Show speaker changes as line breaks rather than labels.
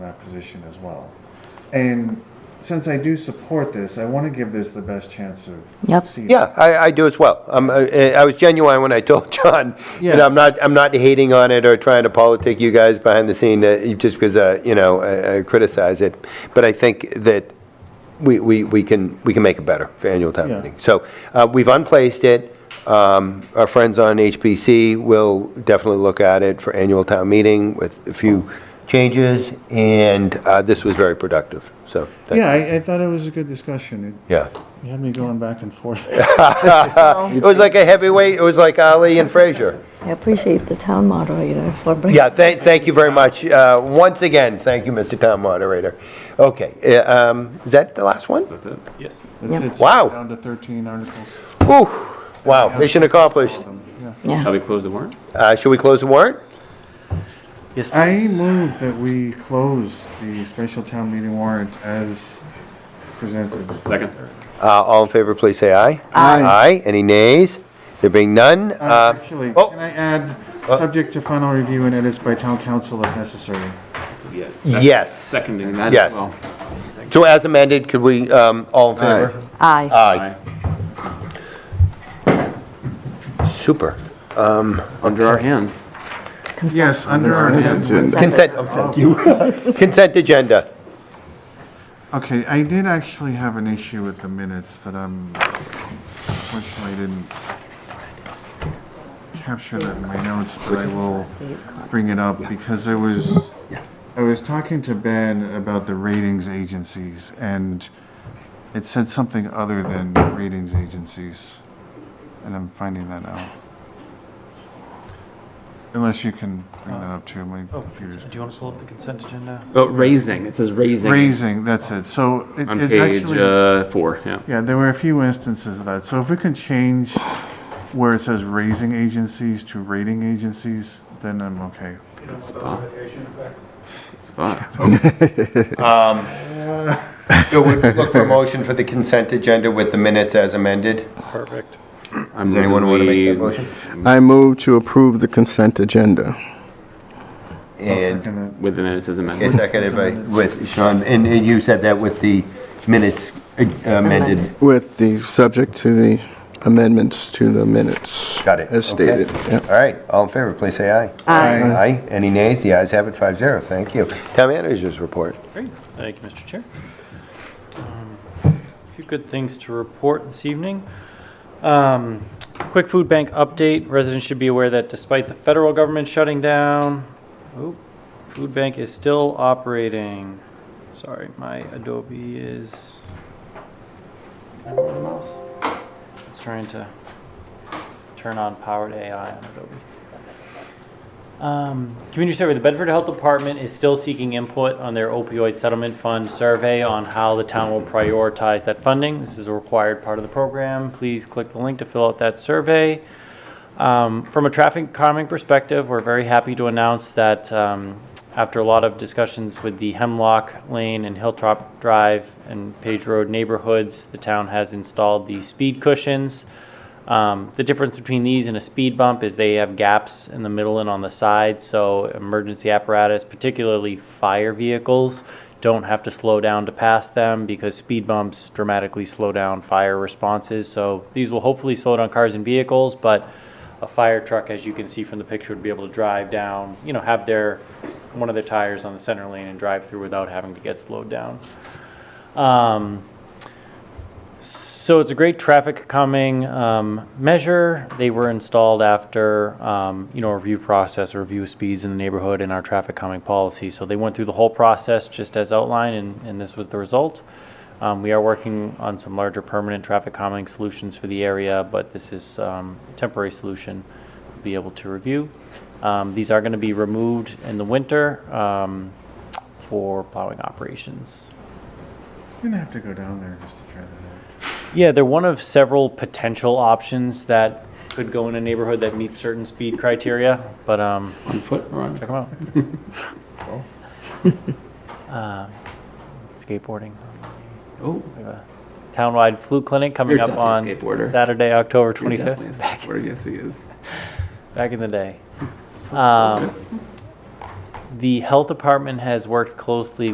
that position as well. And since I do support this, I want to give this the best chance of
Yep.
succeeding.
Yeah, I, I do as well. Um, I, I was genuine when I told John, and
Yeah.
I'm not, I'm not hating on it or trying to politic you guys behind the scene, uh, just because, uh, you know, I, I criticize it. But I think that we, we, we can, we can make it better for annual town
Yeah.
meeting. So, uh, we've unplaced it. Um, our friends on HPC will definitely look at it for annual town meeting with a few changes, and, uh, this was very productive, so. thank-
Yeah, I, I thought it was a good discussion.
Yeah.
It had me going back and forth.
It was like a heavyweight, it was like Ali and Frazier.
I appreciate the town moderator for bringing.
Yeah, thank, thank you very much. Uh, Once again, thank you, Mr. Town Moderator. Okay, uh, um, is that the last one?
That's it? Yes.
It's- it's
Wow.
Down to 13 articles.
Whew, wow, mission accomplished.
Yeah.
Yeah.
Shall we close the warrant?
Uh, Should we close the warrant?
Yes,
I move that we close the special town meeting warrant as presented.
Second?
Uh, All in favor, please say aye.
Aye.
Aye, any nays? There being none?
Uh,
uh,
Actually,
oh.
can I add, subject to final review and edits by town council if necessary?
Yes.
Yes.
Seconding that
Yes.
as well.
So as amended, could we, um, all in favor?
Aye.
Aye. Super. Um,
Under our hands.
Consent.
Yes, under our hand.
Consent, oh, thank you. Consent agenda.
Okay, I did actually have an issue with the minutes that I'm, unfortunately, I didn't capture that in my notes, but I will bring it up because I was, I was talking to Ben about the ratings agencies and it said something other than ratings agencies. And I'm finding that out. Unless you can bring that up too, my
Oh, do
computer's.
you want to pull up the consent agenda?
Oh, raising, it says raising.
Raising, that's it. So it
On
it
page
actually.
uh, four, yeah.
Yeah, there were a few instances of that. So if we can change where it says raising agencies to rating agencies, then I'm okay.
Spot. Spot.
So we look for a motion for the consent agenda with the minutes as amended.
Does
Does anyone want to make that motion?
I move to approve the consent agenda.
I'll
And
second that.
With the minutes as
okay,
amended.
seconded by, with Sean, and and you said that with the minutes uh, amended.
With the, subject to the amendments to the minutes.
Got it.
As
Okay.
stated. Yep.
All right, all in favor, please say aye.
Aye.
Aye.
Aye, any nays? The ayes have it, five zero, thank you. Town managers report.
Great, thank you, Mr. Chair. Um, A few good things to report this evening. Um, Quick food bank update, residents should be aware that despite the federal government shutting down, oh, food bank is still operating. Sorry, my Adobe is, mouse. it's trying to turn on powered AI on Adobe. Um, community survey, the Bedford Health Department is still seeking input on their opioid settlement fund survey on how the town will prioritize that funding. This is a required part of the program. Please click the link to fill out that survey. Um, From a traffic calming perspective, we're very happy to announce that um, after a lot of discussions with the Hemlock Lane and Hilltop Drive and Page Road neighborhoods, the town has installed the speed cushions. Um, The difference between these and a speed bump is they have gaps in the middle and on the side, so emergency apparatus, particularly fire vehicles, don't have to slow down to pass them because speed bumps dramatically slow down fire responses. So these will hopefully slow down cars and vehicles, but a fire truck, as you can see from the picture, would be able to drive down, you know, have their, one of their tires on the center lane and drive through without having to get slowed down. Um, so it's a great traffic calming um, measure. They were installed after, um, you know, a review process, a review of speeds in the neighborhood and our traffic calming policy. So they went through the whole process just as outlined, and, and this was the result. Um, we are working on some larger permanent traffic calming solutions for the area, but this is um, a temporary solution we'll be able to review. Um, these are going to be removed in the winter um, for plowing operations.
You're gonna have to go down there just to try that
Yeah, they're one of several potential options that could go in a neighborhood that meets certain speed criteria, but um,
On foot or on?
check them out. Um, Skateboarding.
Oh,
We have a Townwide flu clinic coming
You're
up on
definitely a skateboarder.
Saturday, October
you're definitely a
25th,
skateboarder, yes he is.
back in Um, the day. Um, The health department has worked closely